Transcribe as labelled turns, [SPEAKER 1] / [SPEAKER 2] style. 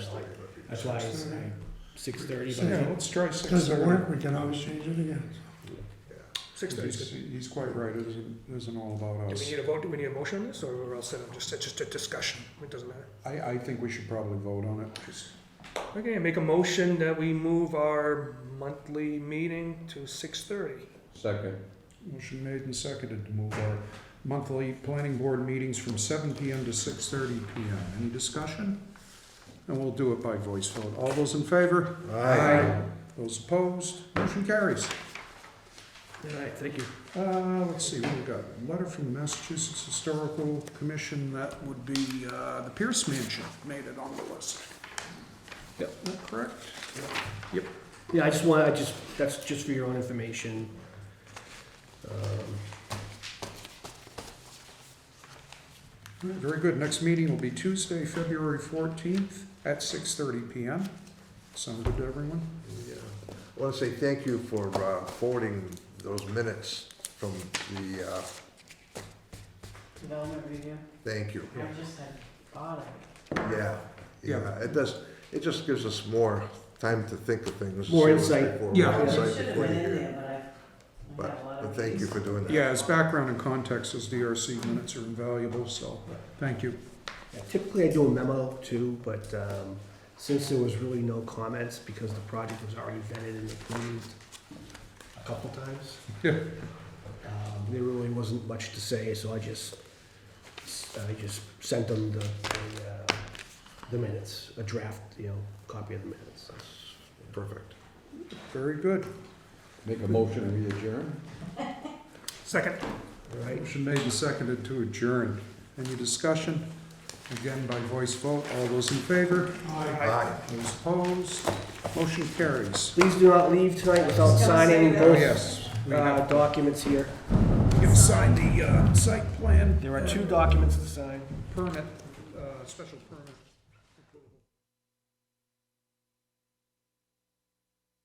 [SPEAKER 1] That's why it's six thirty, but I
[SPEAKER 2] Yeah,
[SPEAKER 1] think
[SPEAKER 2] let's try six.
[SPEAKER 3] Doesn't work, we can always change it again.
[SPEAKER 4] Six thirty.
[SPEAKER 2] He's,
[SPEAKER 4] Do
[SPEAKER 2] he's quite right, it isn't, it isn't all about
[SPEAKER 4] we
[SPEAKER 2] us.
[SPEAKER 4] need a vote? Do we need a motion on this, or we're all set? up? Just, it's just a discussion. It doesn't matter.
[SPEAKER 2] I, I think we should probably vote on it.
[SPEAKER 4] Okay, make a motion that we move our monthly meeting to six thirty.
[SPEAKER 5] Second.
[SPEAKER 2] Motion made and seconded to move our monthly planning board meetings from seven PM to six thirty PM. Any discussion? And we'll do it by voice vote. All those in favor? Those opposed? Motion carries.
[SPEAKER 1] All right, thank you.
[SPEAKER 2] Uh, let's see, we've got a letter from the Massachusetts Historical Commission, that would be, uh, the Pierce Mansion made it on the list.
[SPEAKER 1] Yep.
[SPEAKER 2] Is that correct?
[SPEAKER 1] Yeah, I just want, I just, that's just for your own information. Um,
[SPEAKER 2] All right, Very good. Next meeting will be Tuesday, February fourteenth at six thirty PM. Sound good to everyone?
[SPEAKER 3] Yeah. I want to say thank you for uh, forwarding those minutes from the, uh,
[SPEAKER 6] Development review,
[SPEAKER 3] thank you.
[SPEAKER 6] I just had thought of it.
[SPEAKER 3] Yeah, yeah, it does, it just gives us more time to think of things.
[SPEAKER 1] More insight.
[SPEAKER 3] Before-
[SPEAKER 2] Yeah.
[SPEAKER 3] more
[SPEAKER 6] It
[SPEAKER 3] insight
[SPEAKER 6] should have
[SPEAKER 3] before
[SPEAKER 6] been
[SPEAKER 3] you
[SPEAKER 6] in
[SPEAKER 3] hear.
[SPEAKER 6] there, but I, I got a lot
[SPEAKER 3] But
[SPEAKER 6] of.
[SPEAKER 3] thank you
[SPEAKER 6] things.
[SPEAKER 3] for doing that.
[SPEAKER 2] Yeah, as background and context, those DRC minutes are invaluable, so thank you.
[SPEAKER 1] yeah, Typically, I do a memo too, but um, since there was really no comments because the project was already vetted and approved a couple times.
[SPEAKER 2] Yeah.
[SPEAKER 1] um, There really wasn't much to say, so I just, I just sent them the, the, uh, the minutes, a draft, you know, copy of the minutes.
[SPEAKER 3] Perfect.
[SPEAKER 2] Very good.
[SPEAKER 5] Make a motion to adjourn?
[SPEAKER 4] Second.
[SPEAKER 1] All right,
[SPEAKER 2] Motion made and seconded to adjourn. Any discussion? Again, by voice vote, all those in favor?
[SPEAKER 3] Aye.
[SPEAKER 2] Those opposed? Motion carries.
[SPEAKER 1] please do not leave tonight without
[SPEAKER 6] Just gonna say
[SPEAKER 1] signing
[SPEAKER 6] that.
[SPEAKER 2] Oh,
[SPEAKER 1] both
[SPEAKER 2] yes. we
[SPEAKER 1] uh,
[SPEAKER 2] have-
[SPEAKER 1] documents here.
[SPEAKER 2] You've signed the uh, site plan
[SPEAKER 1] There are two documents to sign.
[SPEAKER 2] permit, uh, special permit.